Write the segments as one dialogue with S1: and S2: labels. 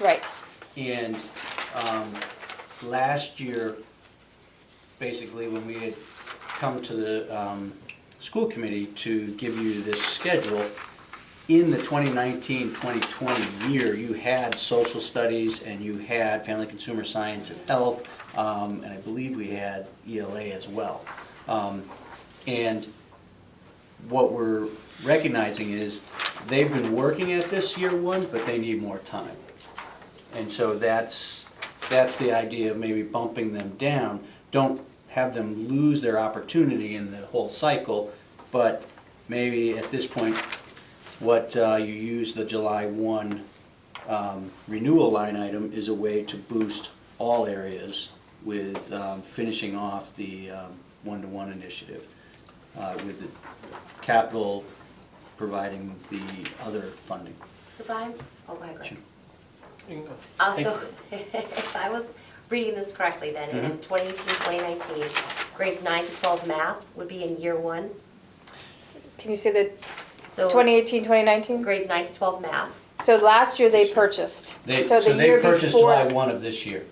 S1: Right,
S2: And um, last year, basically, when we had come to the um, school committee to give you this schedule, in the 2019-2020 year, you had social studies and you had family consumer science and health, um, and I believe we had ELA as well. Um, And what we're recognizing is they've been working at this year one, but they need more time. And so that's, that's the idea of maybe bumping them down. Don't have them lose their opportunity in the whole cycle, but maybe at this point, what uh, you use the July 1 um, renewal line item is a way to boost all areas with um, finishing off the um, one-to-one initiative uh, with the capital providing the other funding.
S3: So if I'm, oh, go ahead, Greg.
S2: Sure.
S4: You can go.
S3: Uh, so if I was reading this correctly, then
S2: Mm-hmm.
S3: in 2018, 2019, grades 9 to 12 math would be in year one.
S1: can you say the
S3: So
S1: 2018, 2019?
S3: grades 9 to 12 math,
S1: So last year they purchased.
S2: They,
S1: So
S2: so
S1: the
S2: they
S1: year
S2: purchased July
S1: before,
S2: one of this year.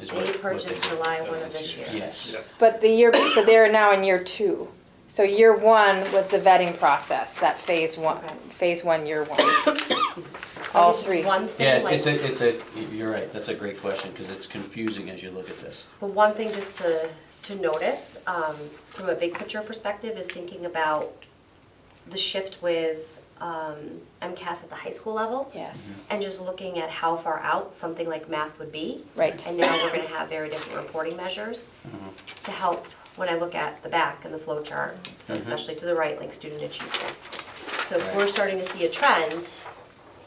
S2: is what-
S3: they
S2: what they
S3: purchased
S2: did.
S3: July 1 of this year.
S2: Yes,
S1: but the year, so they're now in year two. So year one was the vetting process, that phase one,
S3: Okay.
S1: phase one, year one.
S3: Oh,
S1: All
S3: it's just
S1: three.
S3: one thing,
S2: yeah,
S3: like-
S2: it's a, it's a, you're right, that's a great question, because it's confusing as you look at this.
S3: Well, one thing just to, to notice, um, from a big picture perspective, is thinking about the shift with, um, MCAS at the high school level.
S1: Yes,
S3: And just looking at how far out something like math would be.
S1: Right.
S3: And now we're gonna have very different reporting measures
S2: Mm-hmm.
S3: to help when I look at the back and the flow chart, so especially to the right, like student achievement. So if we're
S2: Right.
S3: starting to see a trend,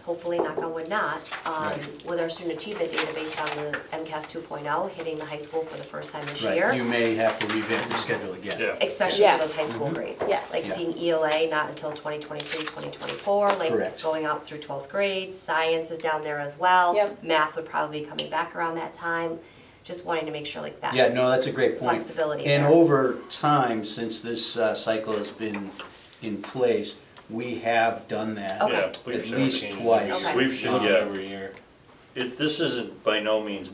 S3: hopefully knock on wood not, um,
S2: Right.
S3: with our student achievement data based on the MCAS two oh hitting the high school for the first time this year.
S2: Right, you may have to revamp the schedule again.
S4: Yeah.
S3: Especially for those
S1: Yes.
S3: high school grades.
S1: Yes.
S3: Like
S2: Mm-hmm. Yeah.
S3: seeing ELA not until 2023, 2024, like
S2: Correct.
S3: going out through 12th grade, science is down there as well.
S1: Yep.
S3: Math would probably be coming back around that time, just wanting to make sure like that's.
S2: Yeah, no, that's a great point.
S3: Flexibility
S2: And
S3: there.
S2: over time, since this uh, cycle has been in place, we have done that
S3: Okay.
S5: Yeah,
S2: at
S5: we've shown
S2: least
S4: changes.
S2: twice.
S3: Okay.
S5: We've shown, yeah,
S4: Every year.
S5: it, this isn't by no means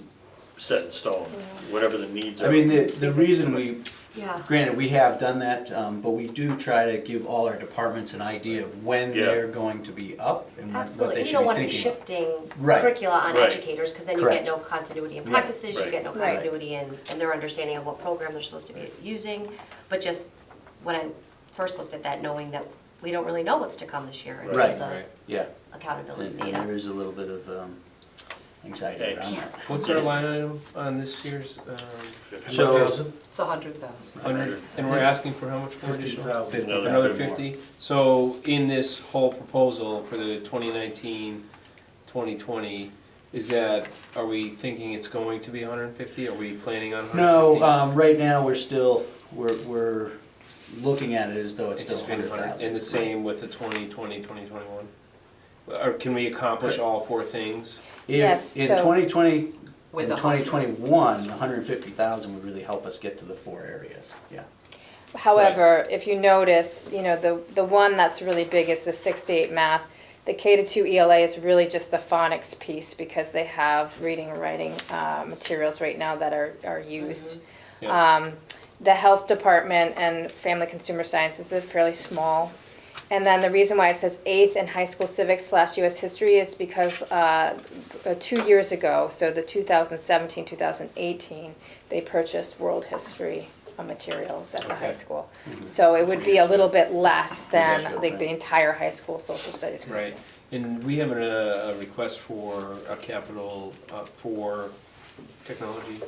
S5: set in stone, whatever the needs are.
S2: I mean, the, the reason we
S3: Yeah,
S2: Granted, we have done that, um, but we do try to give all our departments an idea of when
S5: Yeah.
S2: they're going to be up and what what
S3: absolutely.
S2: they
S3: You
S2: should
S3: don't
S2: be
S3: want to be
S2: thinking. about.
S3: shifting
S2: Right.
S3: curricula on
S5: Right.
S3: educators because then you get
S2: Correct.
S3: no continuity in
S2: Right.
S3: practices, you get no
S1: Right.
S3: continuity in, in their understanding of what program they're supposed to be using. But just when I first looked at that, knowing that we don't really know what's to come this year in
S2: Right. Mm-hmm.
S3: terms of
S4: Right.
S2: Yeah,
S3: accountability
S2: and
S3: uh, data.
S2: and there is a little bit of um, anxiety around
S5: Angst.
S2: that.
S4: What's our line item on this year's, um,
S2: So,
S6: It's a hundred thousand.
S4: hundred, and we're asking for how much more additional?
S2: fifty
S5: Another
S4: Another
S2: thousand more.
S4: fifty? So in this whole proposal for the 2019-2020, is that, are we thinking it's going to be hundred and fifty? Are we planning on hundred and fifty?
S2: No, um, right now, we're still, we're, we're looking at it as though it's
S4: It's
S2: still
S4: just been
S2: hundred
S4: hundred,
S2: thousand.
S4: and the same with the 2020, 2021. Or can we accomplish all four things?
S1: Yes,
S2: If, in
S1: so-
S2: twenty twenty,
S6: With
S2: in
S6: a
S2: twenty
S6: hundred.
S2: twenty-one, hundred and fifty thousand would really help us get to the four areas, yeah.
S1: However, if you notice, you know, the, the one that's really big is the six to eight math. The K to two ELA is really just the phonics piece because they have reading and writing uh, materials right now that are, are used.
S4: Yeah.
S1: The health department and family consumer science is a fairly small. And then the reason why it says eighth in high school civics slash US history is because uh, uh, two years ago, so the 2017, 2018, they purchased world history uh, materials at the high
S4: Okay.
S1: school. So it would be a little bit less than
S2: That's
S1: like the
S2: okay.
S1: entire high school social studies.
S4: Right,
S1: curriculum.
S4: and we have a, a request for a capital, uh, for technology.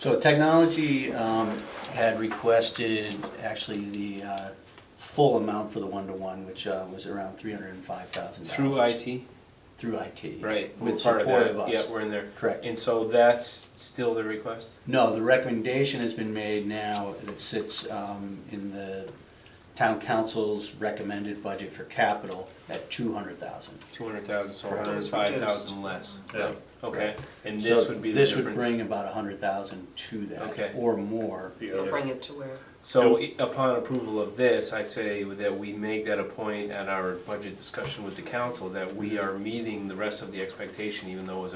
S2: So technology um, had requested actually the uh, full amount for the one-to-one, which uh, was around three hundred and five thousand dollars.
S4: Through IT,
S2: Through IT.
S4: right? we're
S2: With
S4: part
S2: support
S4: of
S2: of
S4: that.
S2: us.
S4: Yeah, we're in there.
S2: Correct.
S4: And so that's still the request?
S2: No, the recommendation has been made now that sits um, in the town council's recommended budget for capital at two hundred thousand.
S4: Two hundred thousand, so
S2: Correct.
S4: hundred and five thousand less.
S5: Yeah.
S4: Okay, and this would be the
S2: This would bring
S4: difference.
S2: about a hundred thousand to
S4: Okay.
S2: that, or more.
S5: The
S6: To bring
S5: other,
S6: it to where,
S4: So i- upon approval of this, I say that we make that a
S2: Mm-hmm.
S4: point at our budget discussion with the council, that we are meeting the rest of the expectation, even though it was